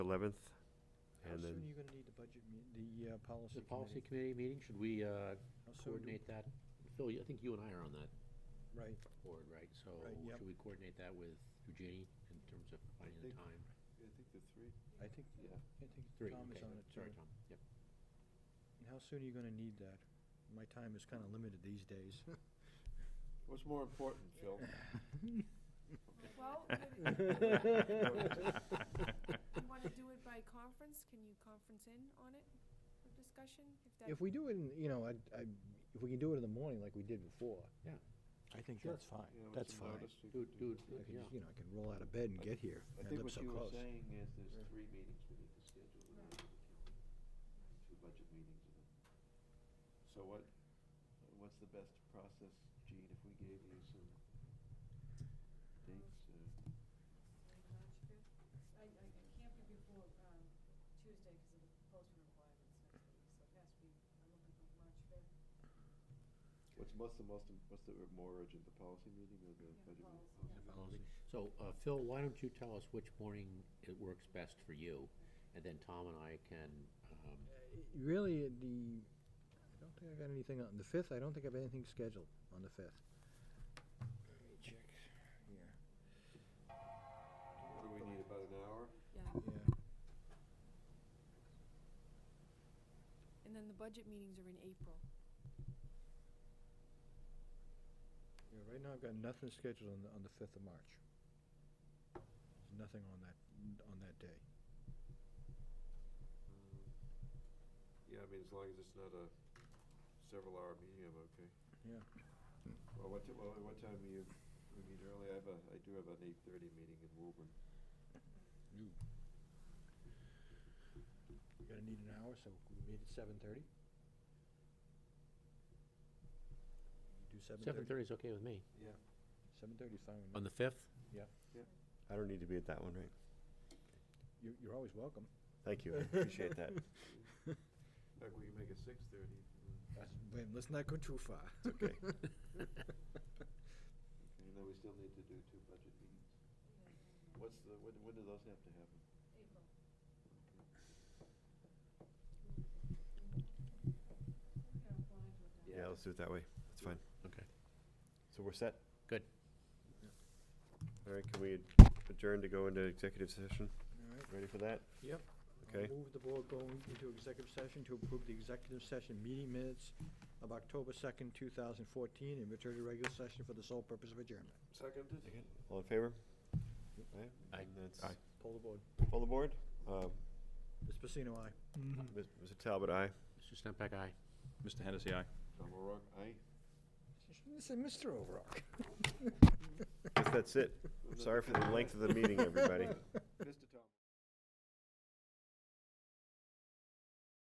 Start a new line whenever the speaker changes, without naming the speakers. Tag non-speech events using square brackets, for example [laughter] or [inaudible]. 11th,
How
and
soon
then-
are you gonna need the budget, me- the uh, policy
The policy
committee?
committee meeting, should we uh,
How soon Oh, do-
coordinate that? Phil, you- I think you and I are on that
Right,
board, right? So
Right, yep.
should we coordinate that with Eugenie in terms of finding the
think-
time?
I think the three,
I think,
yeah.
I think
Three,
Tom is
okay.
on it too.
Sorry, Tom. Yep.
And how soon are you gonna need that? My time is kinda limited these days.
What's more important, Phil?
Well,
[laughs]
would- you want to do it by conference? Can you conference in on it for discussion? that-
If we do it in, you know, I, I, if we can do it in the morning like we did before.
Yeah.
I think
Sure.
that's fine,
You know, with
that's
some
fine.
notice, we
Do,
could
do,
it.
I can
yeah.
just, you know, I can roll out of bed and get here.
I
I
think what
live so
you were
close.
saying is there's
Yeah.
three meetings we need to schedule, and then we can- two budget meetings. and then- So what, what's the best process, Gene, if we gave you some dates? uh,
I, I I can't be before, um, Tuesday because of the postman requirements next week, so it has to be, I'm looking for March fifth.
What's most, the most, im- what's the more urgent, the policy meeting or the
Yeah,
budget meeting?
policy,
Policy meeting.
Policy. [laughs] So uh, Phil, why don't you tell us which morning it works best for you? And then Tom and I can, um,
Really, the, I don't think I got anything on, the fifth, I don't think I have anything scheduled on the fifth. Let me check here.
What do we need, about an hour?
Yeah,
Yeah,
and then the budget meetings are in April.
yeah, right now I've got nothing scheduled on, the- on the fifth of March. There's Nothing on that, on that day.
Um, Yeah, I mean, as long as it's not a several hour meeting, I'm okay.
Yeah.
Well, what, ti- well, what time you, we meet early? I have a, I do have an eight thirty meeting in Woburn.
We're gonna need an hour, so we meet at seven thirty? Do seven
seven
thirty?
thirty is okay with me.
Yeah.
Seven thirty is fine with me.
On the fifth?
I don't need to be at that one, right?
You're, you're always welcome.
Thank you, I appreciate
[laughs]
that.
In fact, we can make it six thirty.
That's- wait, Let's not go too far.
okay.
And then we still need to do two budget meetings. What's the, when, when do those have to happen?
April. Yeah, I'm fine with that.
Yeah, let's do it that way. That's fine.
Okay.
So we're set?
Good.
All right, can we adjourn to go into executive session?
[laughs] All right.
Ready for that?
Yep. I'll
Okay.
Move the board going into executive session to approve the executive session meeting minutes of October second, two thousand fourteen, and return to regular session for the sole purpose of adjournment.
Seconded?
All in favor?
Aye.
And that's,
Pull the board.
pull the board? Uh,
Ms. Pacino, aye.
Ms- Mr. Talbot, aye.
Mr. Stempak, aye.
Mr. Hennessy, aye.
Tom O'Rourke, aye.
This is Mr. Overrock.
[laughs]
Guess that's it. Sorry for the length of the meeting, everybody.